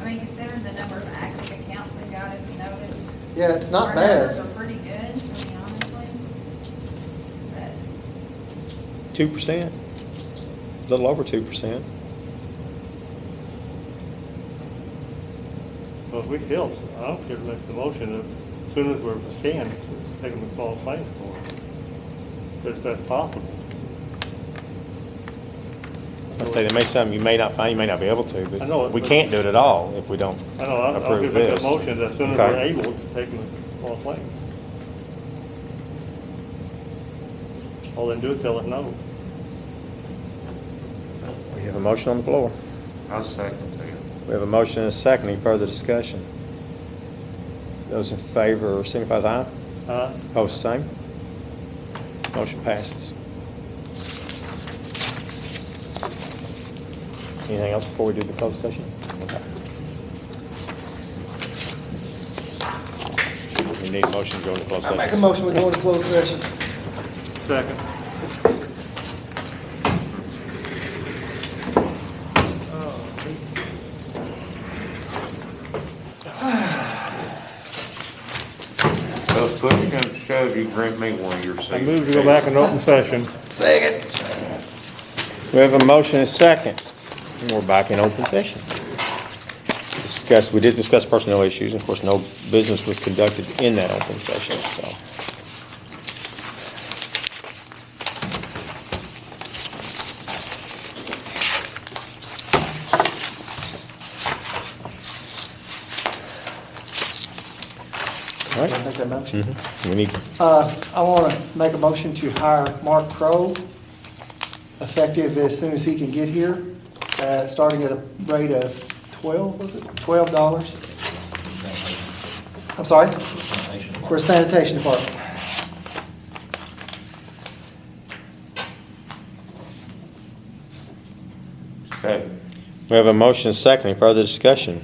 I mean, considering the number of active accounts we got, if you notice. Yeah, it's not Our numbers bad. are pretty good, to be honestly. But, Two percent, a little over two percent. Well, if we feel, I don't care to make the motion, as soon as we're can, take them to fall claims for it, if that's possible. I say there may some you may not find, you may not be able to, I know but it, we but- can't do it at all if we don't I know, I'll, I'll approve give it this. a motion as soon as Okay. we're able to take them to fall claims. All they do is tell us no. We have a motion on the floor. I'll second that. We have a motion and a second. Any further discussion? Those in favor signify with aye. Uh, Opposed, same. Motion passes. Anything else before we do the closed session? Okay. We need a motion to go into closed I session. make a motion, we go into closed session. second. So push comes to shove, you grant me one of your seats. I move to go back in open session. Second. We have a motion and a second, and we're back in open session. Discuss, we did discuss personnel issues, and of course, no business was conducted in that open session, so. All Can I right, make that motion? we need, Uh, I want to make a motion to hire Mark Crow, effective as soon as he can get here, uh, starting at a rate of twelve, was it, twelve dollars? I'm sorry? For sanitation department. Second. we have a motion and a second, any further discussion?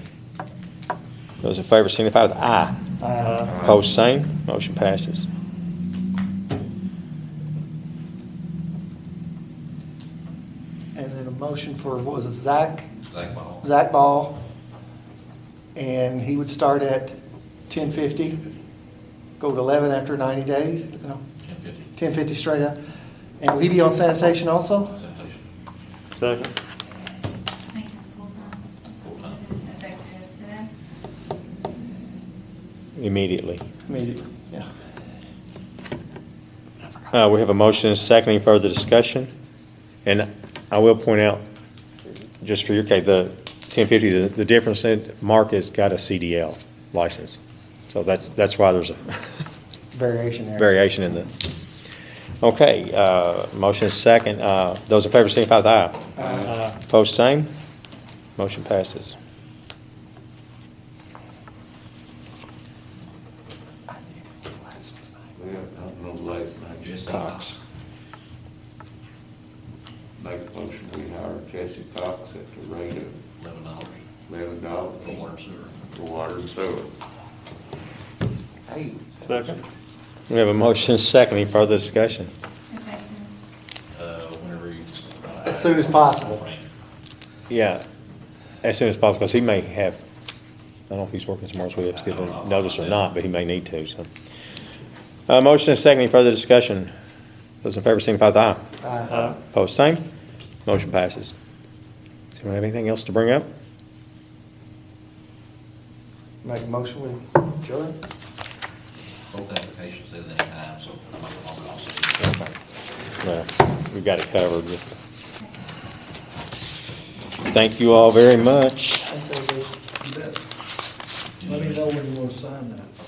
Those in favor signify with aye. Uh, Opposed, same. Motion passes. And then a motion for, what was it, Zach, Zach Ball. Zach Ball? And he would start at ten fifty, go to eleven after ninety days, no, Ten fifty, ten fifty straight up. And will he be on sanitation also? sanitation, Second. I think full-time, full-time. effective today. Immediately. I mean, yeah. Uh, we have a motion and a second. Any further discussion? And I will point out, just for your case, the ten fifty, the, the difference in, Mark has got a CDL license. So that's, that's why there's a Variation there. variation in the. Okay, uh, motion is second. Uh, those in favor signify with aye. Uh, Opposed, same. Motion passes. We have nothing on last night. Jesse. Cox. Make a motion, we hire Jesse Cox at the rate of Eleven dollars eleven dollars for water and sewer. for water and sewer. Hey. Second. We have a motion and a second. Any further discussion? Effective Uh, whenever you. As soon as possible. Frank, Yeah, as soon as possible, because he may have, I don't know if he's working tomorrow, so we have to give him notice or not, but he may need to, so. Uh, motion and second, any further discussion? Those in favor signify with aye. Uh, Uh, Opposed, same. Motion passes. Do we have anything else to bring up? Make a motion with Joe? Both applications says anytime, so I'm not gonna call it off. Well, we've got it covered. Thank you all very much. Let me know when you want to sign that.